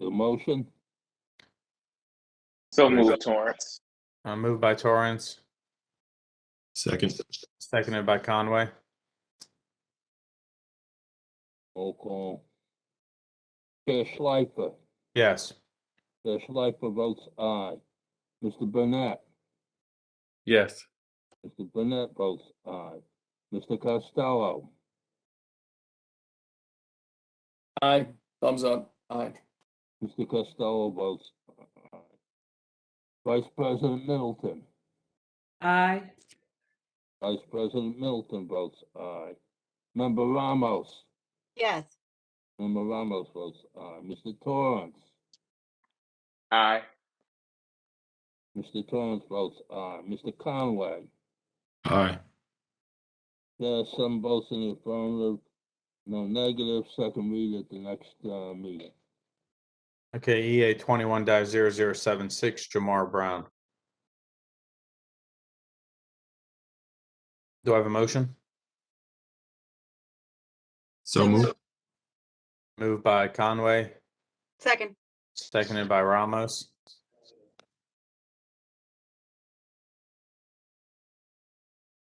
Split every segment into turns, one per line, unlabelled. The motion?
So move Torrance.
Uh, moved by Torrance,
Second,
seconded by Conway.
Roll call. Chair Schleifer,
Yes.
Chair Schleifer votes aye. Mr. Burnett,
yes,
Mr. Burnett votes aye. Mr. Costello,
Aye, thumbs up, aye.
Mr. Costello votes aye. Vice President Middleton,
aye,
Vice President Middleton votes aye. Member Ramos,
yes,
Member Ramos votes aye. Mr. Torrance,
Aye.
Mr. Torrance votes aye. Mr. Conway,
aye.
There are some votes in the affirmative, no negative, second read at the next uh, meeting.
Okay, EA twenty-one 76 Jamar Brown. Do I have a motion?
So moved,
Moved by Conway,
second,
seconded by Ramos.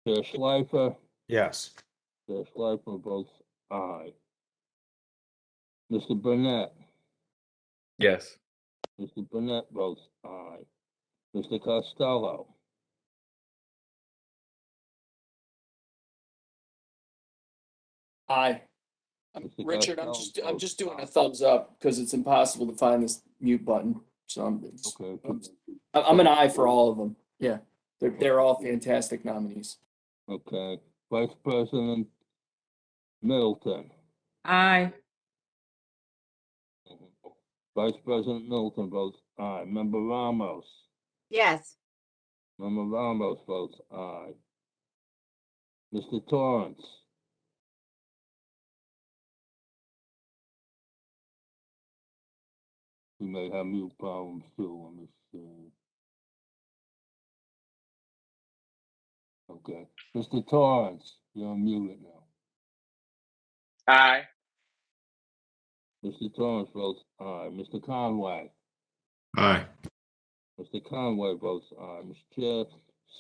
Chair Schleifer,
Yes.
Chair Schleifer votes aye. Mr. Burnett,
yes,
Mr. Burnett votes aye. Mr. Costello,
Aye. Um,
Mr.
Richard, I'm
Costello
just, I'm
votes
just doing
aye.
a thumbs up because it's impossible to find this mute button. So I'm, it's-
Okay,
I'm, I'm an aye for all of them. Yeah, they're, they're all fantastic nominees.
okay. Vice President Middleton,
aye.
Vice President Middleton votes aye. Member Ramos,
yes,
Member Ramos votes aye. Mr. Torrance, we may have new problems too on this. Uh... Okay, Mr. Torrance, you're muted now.
Aye.
Mr. Torrance votes aye. Mr. Conway,
aye.
Mr. Conway votes aye. Mr. Chair,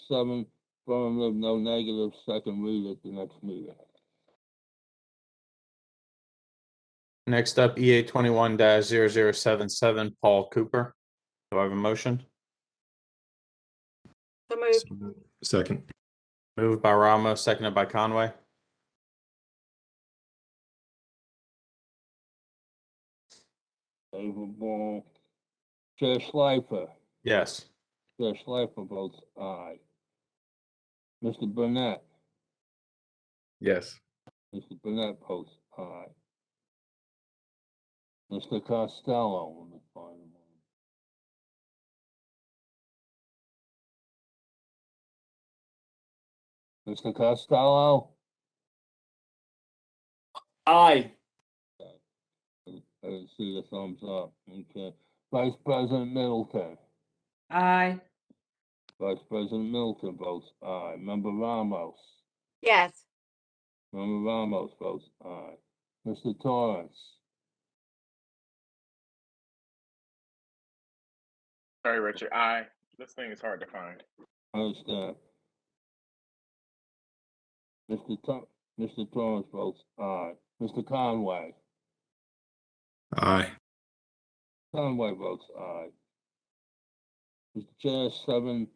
seven affirmative, no negative, second read at the next meeting.
Next up, EA twenty-one 77 Paul Cooper. Do I have a motion?
so moved,
So moved. Second,
Moved by Ramos, seconded by Conway.
David Ball. Chair Schleifer,
Yes.
Chair Schleifer votes aye. Mr. Burnett,
yes,
Mr. Burnett votes aye. Mr. Costello, let me find him. Mr. Costello,
Aye,
I didn't see the thumbs up, okay. Vice President Middleton,
Aye.
Vice President Middleton votes aye. Member Ramos.
yes,
Member Ramos votes aye. Mr. Torrance,
Sorry, Richard. Aye. This thing is hard to find.
I understand. Mr. Tor- Mr. Torrance votes aye. Mr. Conway,
aye.
Conway votes aye. Mr. Chair, seven,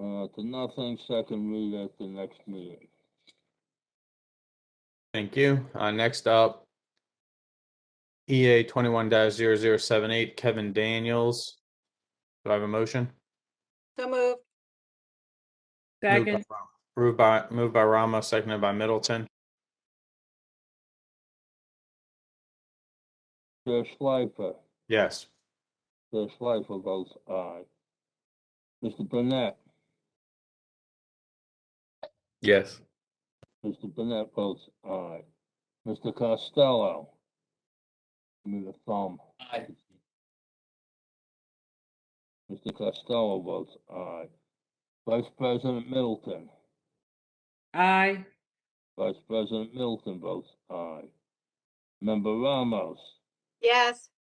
uh, to nothing, second read at the next meeting.
Thank you. Uh, next up, EA twenty-one 78 Kevin Daniels. Do I have a motion?
so moved,
Moved by
Second,
Ram- Moved by, moved by Ramos, seconded by Middleton.
Chair Schleifer,
Yes.
Chair Schleifer votes aye. Mr. Burnett,
yes,
Mr. Burnett votes aye. Mr. Costello, give me the thumb.
aye,
Mr. Costello votes aye. Vice President Middleton,
aye,
Vice President Middleton votes aye. Member Ramos,
yes,